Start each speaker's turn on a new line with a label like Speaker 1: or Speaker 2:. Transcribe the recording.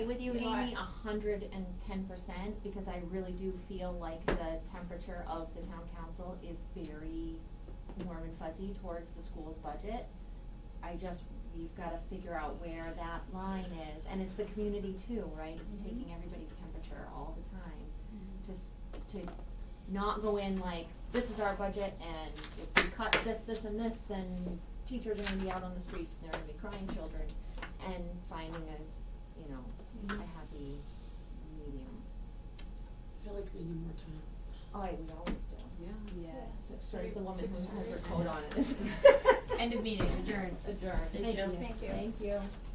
Speaker 1: with you,
Speaker 2: You know,
Speaker 1: Amy, a
Speaker 2: I-
Speaker 1: hundred and ten percent, because I really do feel like the temperature of the town council is very warm and fuzzy towards the school's budget. I just, we've gotta figure out where that line is, and it's the community too, right? It's
Speaker 2: Mhm.
Speaker 1: taking everybody's temperature all the time, just to not go in like, this is our budget, and if we cut this, this, and this, then teachers are gonna be out on the streets, and they're gonna be crying children, and finding a, you know, a
Speaker 2: Mhm.
Speaker 1: happy medium.
Speaker 3: I feel like we need more time.
Speaker 1: Oh, I would always do.
Speaker 2: Yeah.
Speaker 1: So- Says the woman
Speaker 2: Six
Speaker 1: who has her
Speaker 2: thirty.
Speaker 1: coat on. it.
Speaker 2: End of meeting, adjourned.
Speaker 1: Adjourned.
Speaker 2: Thank you.
Speaker 1: Thank you.